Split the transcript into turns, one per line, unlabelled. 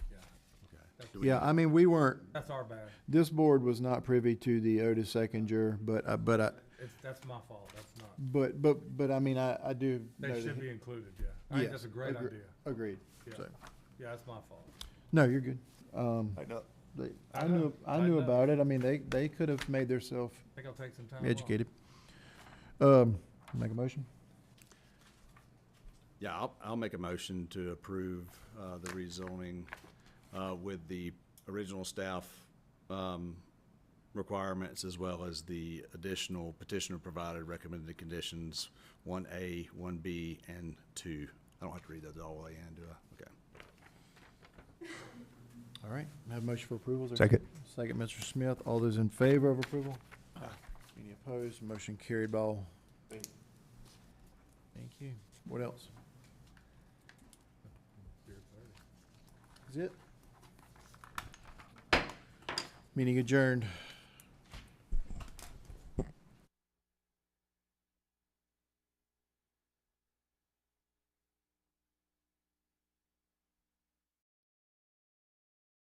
do we?
Yeah, I mean, we weren't,
That's our bad.
this board was not privy to the Otis Eckinger, but, I- but I,
It's, that's my fault. That's not.
but, but, but I mean, I, I do. know
They
that
should
he-
be included, yeah. I think
Yeah,
that's a great
agre-
idea.
Agreed.
Yeah.
So-
Yeah, that's my fault.
No, you're good. Um,
I know.
they-
I
I knew,
know,
I
I
knew
know.
about it. I mean, they, they could have made themselves
I think I'll take some time off.
educated. Um, make a motion?
Yeah, I'll, I'll make a motion to approve, uh, the rezoning, uh, with the original staff, um, requirements as well as the additional petitioner provided recommended conditions, one A, one B, and two. I don't have to read those all the way in, do I? Okay.
All right, have a motion for approval. is there- Second, Mr. Smith. All those in favor of approval? Any opposed? Motion carried by all. Thank you. What else? Is it? Meeting adjourned.